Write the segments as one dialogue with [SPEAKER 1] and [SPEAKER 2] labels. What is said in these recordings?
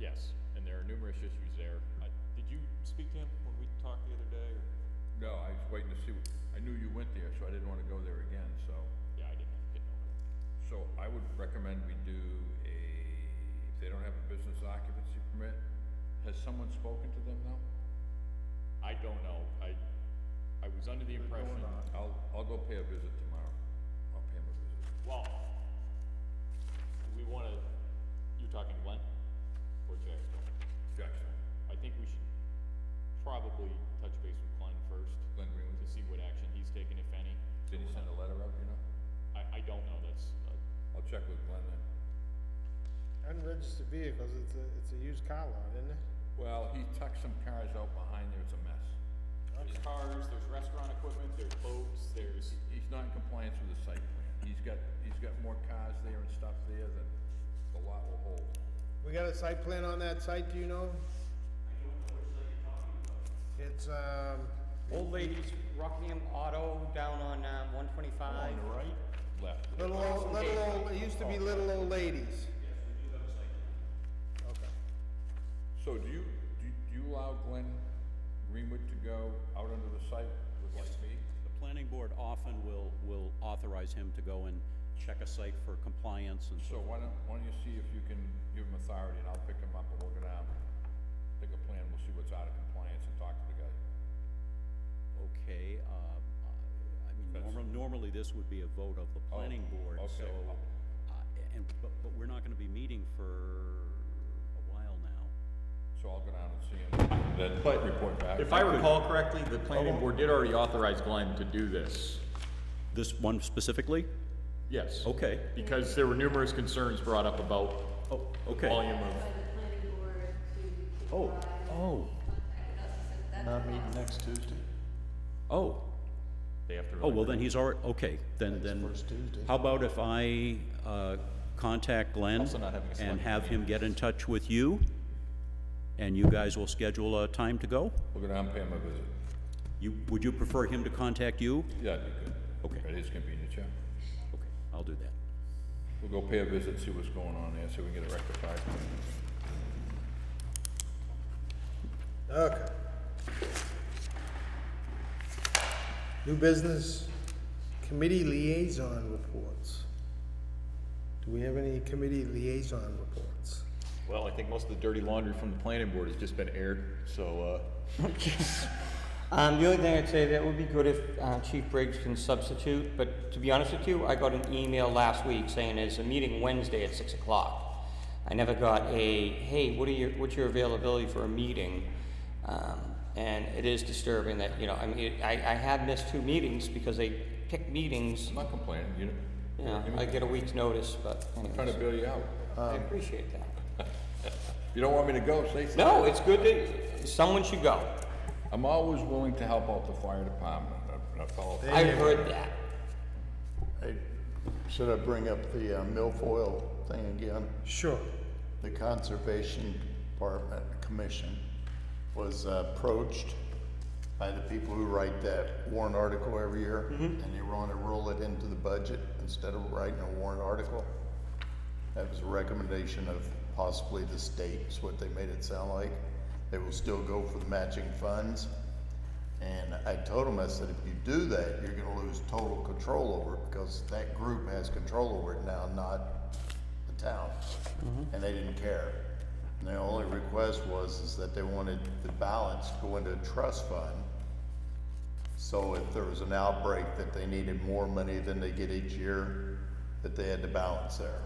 [SPEAKER 1] Yes, and there are numerous issues there. I- Did you speak to him when we talked the other day, or?
[SPEAKER 2] No, I was waiting to see, I knew you went there, so I didn't wanna go there again, so.
[SPEAKER 1] Yeah, I didn't get over it.
[SPEAKER 2] So I would recommend we do a, if they don't have a business occupancy permit, has someone spoken to them now?
[SPEAKER 1] I don't know, I, I was under the impression,
[SPEAKER 2] I'll, I'll go pay a visit tomorrow. I'll pay him a visit.
[SPEAKER 1] well, do we wanna, you're talking Glenn or Jackstone?
[SPEAKER 2] Jackson,
[SPEAKER 1] I think we should probably touch base with Glenn first
[SPEAKER 2] Glenn Greenwood,
[SPEAKER 1] to see what action he's taken, if any.
[SPEAKER 2] did he send a letter out, you know?
[SPEAKER 1] I, I don't know, that's, uh,
[SPEAKER 2] I'll check with Glenn then.
[SPEAKER 3] Unregistered vehicles, it's a, it's a used car lot, isn't it?
[SPEAKER 2] Well, he tucked some cars out behind there, it's a mess.
[SPEAKER 1] there's cars, there's restaurant equipment, there's boats, there's,
[SPEAKER 2] He's not in compliance with the site plan. He's got, he's got more cars there and stuff there than the lot will hold.
[SPEAKER 3] We got a site plan on that site, do you know? I don't know which site you're talking about. It's, um,
[SPEAKER 4] Old ladies, Rockingham Auto down on um, 125.
[SPEAKER 2] right? Left.
[SPEAKER 3] Little old, little old, it used to be little old ladies. Yes, we do have a site.
[SPEAKER 2] So do you, do you- do you allow Glenn Greenwood to go out onto the site with like me?
[SPEAKER 5] The planning board often will, will authorize him to go and check a site for compliance and so
[SPEAKER 2] So why don't, why don't you see if you can give him authority and I'll pick him up and we'll go down, take a plan, we'll see what's out of compliance and talk to the guy.
[SPEAKER 5] Okay, um, I I mean, normal, normally this would be a vote of the planning board,
[SPEAKER 2] okay.
[SPEAKER 5] so, uh, and, but, but we're not gonna be meeting for a while now.
[SPEAKER 2] So I'll go down and see him, then report back.
[SPEAKER 1] If I recall correctly, the
[SPEAKER 5] Oh.
[SPEAKER 1] planning board did already authorize Glenn to do this.
[SPEAKER 5] This one specifically?
[SPEAKER 1] Yes.
[SPEAKER 5] Okay,
[SPEAKER 1] Because there were numerous concerns brought up about
[SPEAKER 5] oh, okay.
[SPEAKER 1] volume of,
[SPEAKER 6] by the planning board to. to
[SPEAKER 5] Oh,
[SPEAKER 6] provide
[SPEAKER 5] oh,
[SPEAKER 6] contact us, so that's what happened.
[SPEAKER 5] oh,
[SPEAKER 1] they have to.
[SPEAKER 5] oh, well, then he's already, okay, then, then. How about if I, uh, contact Glenn and have him get in touch with you? And you guys will schedule a time to go?
[SPEAKER 2] We'll go down and pay him a visit.
[SPEAKER 5] You, would you prefer him to contact you?
[SPEAKER 2] Yeah, that'd be good.
[SPEAKER 5] Okay.
[SPEAKER 2] At his convenience, yeah.
[SPEAKER 5] Okay, I'll do that.
[SPEAKER 2] We'll go pay a visit, see what's going on there, see if we can get it rectified.
[SPEAKER 3] Okay. Okay. New business, committee liaison reports. Do we have any committee liaison reports?
[SPEAKER 1] Well, I think most of the dirty laundry from the planning board has just been aired, so, uh.
[SPEAKER 4] Um, the only thing I'd say that would be good if uh, Chief Briggs can substitute, but to be honest with you, I got an email last week saying there's a meeting Wednesday at six o'clock. I never got a, hey, what are your, what's your availability for a meeting? Um, and it is disturbing that, you know, I mean, I, I have missed two meetings because they pick meetings,
[SPEAKER 2] I'm not complaining, you know,
[SPEAKER 4] you know, I get a week's notice, but
[SPEAKER 2] trying to
[SPEAKER 4] anyways,
[SPEAKER 2] bail you out.
[SPEAKER 4] I appreciate that.
[SPEAKER 2] If you don't want me to go, say so.
[SPEAKER 4] No, it's good that, someone should go.
[SPEAKER 2] I'm always willing to help out the fire department, a- a fellow.
[SPEAKER 4] I've heard that.
[SPEAKER 7] Hey, should I bring up the uh, milfoil thing again?
[SPEAKER 3] Sure.
[SPEAKER 7] The Conservation Department Commission was uh, approached by the people who write that warrant article every year, and you want to roll it into the budget instead of writing a warrant article. That was a recommendation of possibly the state, is what they made it sound like. They will still go for the matching funds. And I told them, I said, if you do that, you're gonna lose total control over it, because that group has control over it now, not the town.
[SPEAKER 4] Mm-hmm.
[SPEAKER 7] And they didn't care. And their only request was, is that they wanted the balance to go into a trust fund. So if there was an outbreak that they needed more money than they get each year, that they had the balance there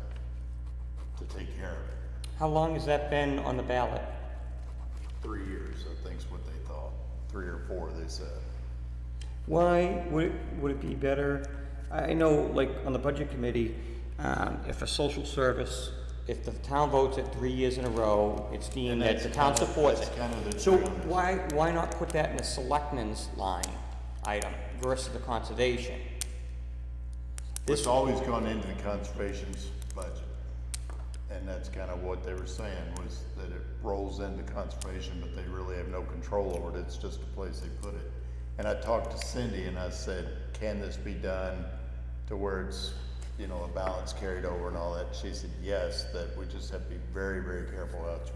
[SPEAKER 7] to take care of it.
[SPEAKER 4] How long has that been on the ballot?
[SPEAKER 7] Three years, I think's what they thought, three or four, they said.
[SPEAKER 4] Why would, would it be better? I I know, like, on the budget committee, um, if a social service, if the town votes it three years in a row, it's deemed that the town supports it.
[SPEAKER 7] That's kind of the
[SPEAKER 4] So
[SPEAKER 7] trend.
[SPEAKER 4] why, why not put that in the selectmen's line item versus the conservation?
[SPEAKER 7] It's always gone into the conservation's budget. And that's kind of what they were saying, was that it rolls into conservation, but they really have no control over it, it's just a place they put it. And I talked to Cindy and I said, can this be done to where it's, you know, a balance carried over and all that? She said, yes, that we just have to be very, very careful how it's